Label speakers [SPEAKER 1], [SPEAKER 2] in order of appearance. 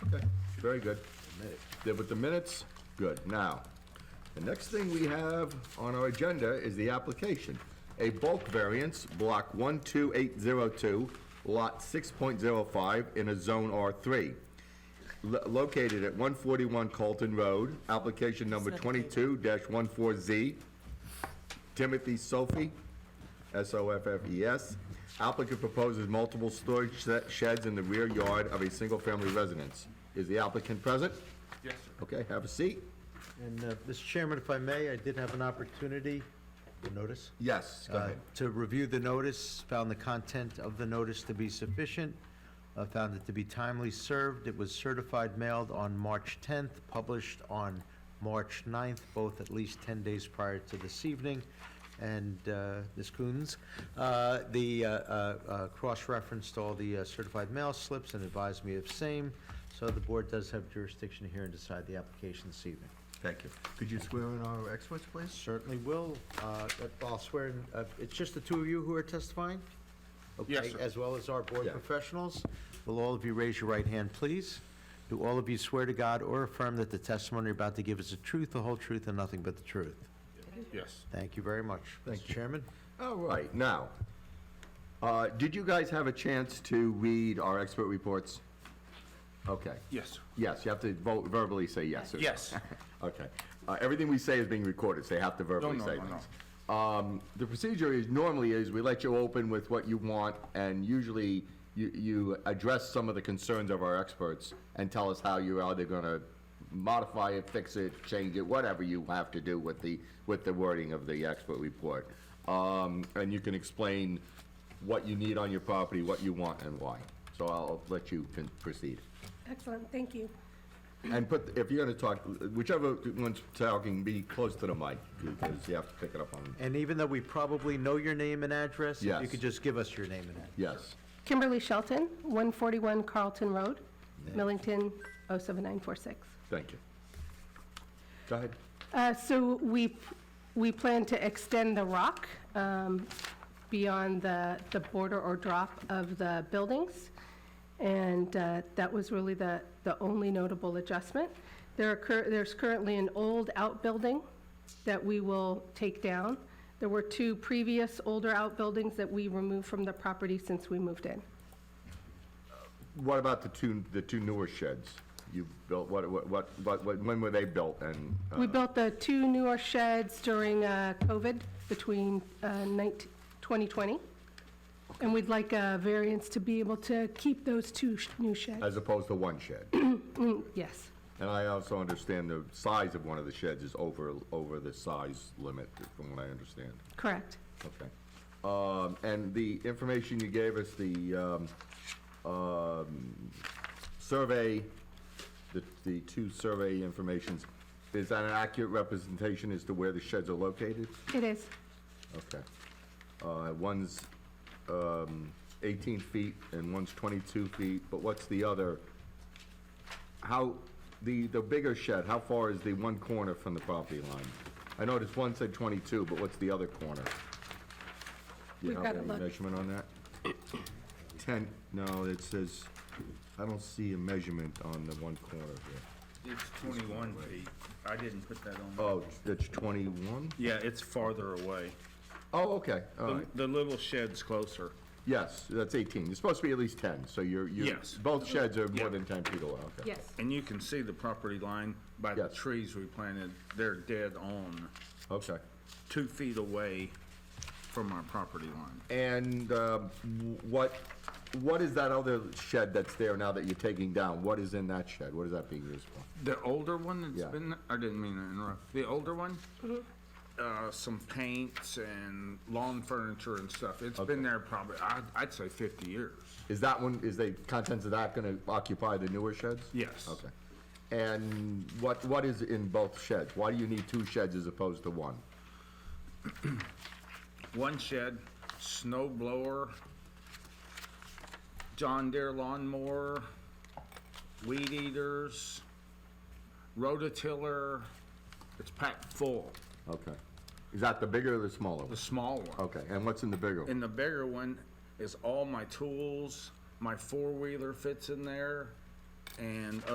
[SPEAKER 1] Very good. Yeah, But the minutes, good. Now, the next thing we have on our agenda is the application. A bulk variance, block 12802, lot 6.05, in a zone R3, lo- located at 141 Colton Road, application number 22-14Z, Timothy Sophie, S-O-F-F-E-S. E Applicant proposes multiple storage se- sheds in the rear yard of a single-family residence. Is the applicant present?
[SPEAKER 2] Yes, sir.
[SPEAKER 1] Okay, have a seat.
[SPEAKER 3] And, uh, Mr. Chairman, if I may, I did have an opportunity, notice,
[SPEAKER 1] Yes, go
[SPEAKER 3] uh,
[SPEAKER 1] ahead.
[SPEAKER 3] to review the notice, found the content of the notice to be sufficient, uh, found it to be timely served. It was certified mailed on March 10th, published on March 9th, both at least 10 days prior to this evening. And uh, Ms. Coons, uh, the uh, uh, uh, cross-referenced all the uh, certified mail slips and advised me of same, so the board does have jurisdiction here and decide the application this evening.
[SPEAKER 1] Thank you. Could you swear in our experts, please?
[SPEAKER 3] Certainly will. Uh, I'll swear, in- uh, it's just the two of you who are testifying?
[SPEAKER 2] Yes,
[SPEAKER 3] Okay,
[SPEAKER 2] sir.
[SPEAKER 3] As well as our board
[SPEAKER 1] Yeah.
[SPEAKER 3] professionals. Will all of you raise your right hand, please? Do all of you swear to God or affirm that the testimony you're about to give is the truth, the whole truth, and nothing but the truth?
[SPEAKER 2] Yes.
[SPEAKER 3] Thank you very much. Mr. Chairman?
[SPEAKER 1] All right, now, uh, did you guys have a chance to read our expert reports? Okay.
[SPEAKER 2] Yes.
[SPEAKER 1] Yes, you have to vo- verbally say yes. or-
[SPEAKER 2] Yes.
[SPEAKER 1] Okay. Uh, Everything we say is being recorded, so you have to verbally
[SPEAKER 2] no,
[SPEAKER 1] say
[SPEAKER 2] no, no.
[SPEAKER 1] things. Um, The procedure is, normally is, we let you open with what you want, and usually you, you address some of the concerns of our experts and tell us how you're either gonna modify it, fix it, change it, whatever you have to do with the, with the wording of the expert report. Um, And you can explain what you need on your property, what you want, and why. So I'll let you con- proceed.
[SPEAKER 4] Excellent, thank you.
[SPEAKER 1] And put, if you're gonna talk, whichever one's talking, be close to the mic, because you have to pick it up on,
[SPEAKER 3] And even though we probably know your name and address, if you
[SPEAKER 1] Yes.
[SPEAKER 3] could just give us your name and address.
[SPEAKER 1] yes.
[SPEAKER 4] Kimberly Shelton, 141 Carlton Road, Millington, 07946.
[SPEAKER 1] Thank you. Go ahead.
[SPEAKER 4] Uh, So we, we plan to extend the rock um, beyond the, the border or drop of the buildings. And uh, that was really the, the only notable adjustment. There are, cur- there's currently an old outbuilding that we will take down. There were two previous older outbuildings that we removed from the property since we moved in.
[SPEAKER 1] What about the two, the two newer sheds you built, what, what, what, what- when were they built, and, uh,
[SPEAKER 4] We built the two newer sheds during uh, COVID between uh, 19 2020, and we'd like a variance to be able to keep those two sh- new sheds.
[SPEAKER 1] as opposed to one shed?
[SPEAKER 4] Yes,
[SPEAKER 1] And I also understand the size of one of the sheds is over, over the size limit, from what I understand.
[SPEAKER 4] correct.
[SPEAKER 1] Okay. Um, and the information you gave us, the, um, um, survey, the, the two survey informations, is that an accurate representation as to where the sheds are located?
[SPEAKER 4] It is,
[SPEAKER 1] Okay. Uh, one's, um, eighteen feet and one's twenty-two feet, but what's the other? How, the, the bigger shed, how far is the one corner from the property line? I noticed one said twenty-two, but what's the other corner? Do you
[SPEAKER 4] We've
[SPEAKER 1] have
[SPEAKER 4] gotta
[SPEAKER 1] any
[SPEAKER 4] look.
[SPEAKER 1] Measurement on that? Ten, no, it says, I don't see a measurement on the one corner here.
[SPEAKER 2] It's twenty-one feet. I didn't put that on.
[SPEAKER 1] Oh, that's twenty-one?
[SPEAKER 2] Yeah, it's farther away.
[SPEAKER 1] Oh, okay, all
[SPEAKER 2] The,
[SPEAKER 1] right.
[SPEAKER 2] the little shed's closer.
[SPEAKER 1] Yes, that's 18. It's supposed to be at least 10, so you're, you're,
[SPEAKER 2] Yes.
[SPEAKER 1] both sheds are
[SPEAKER 2] Yeah.
[SPEAKER 1] more than 10 feet away, okay.
[SPEAKER 4] yes.
[SPEAKER 2] And you can see the property line by the
[SPEAKER 1] Yes.
[SPEAKER 2] trees we planted. They're dead on,
[SPEAKER 1] Okay.
[SPEAKER 2] two feet away from our property line.
[SPEAKER 1] And um, what, what is that other shed that's there now that you're taking down? What is in that shed? What is that being used for?
[SPEAKER 2] The older one
[SPEAKER 1] Yeah.
[SPEAKER 2] that's been, I didn't mean to interrupt. The older one, uh, some paints and lawn furniture and stuff. It's been there probably, I, I'd say fifty years.
[SPEAKER 1] Is that one, is the contents of that going to occupy the newer sheds?
[SPEAKER 2] Yes.
[SPEAKER 1] Okay. And what, what is in both sheds? Why do you need two sheds as opposed to one?
[SPEAKER 2] one shed, snow blower, John Deere lawnmower, weed eaters, rototiller. It's packed full,
[SPEAKER 1] Okay. Is that the bigger or the smaller
[SPEAKER 2] the
[SPEAKER 1] one?
[SPEAKER 2] small one.
[SPEAKER 1] Okay, and what's in the bigger one?
[SPEAKER 2] And the bigger one is all my tools, my four-wheeler fits in there, and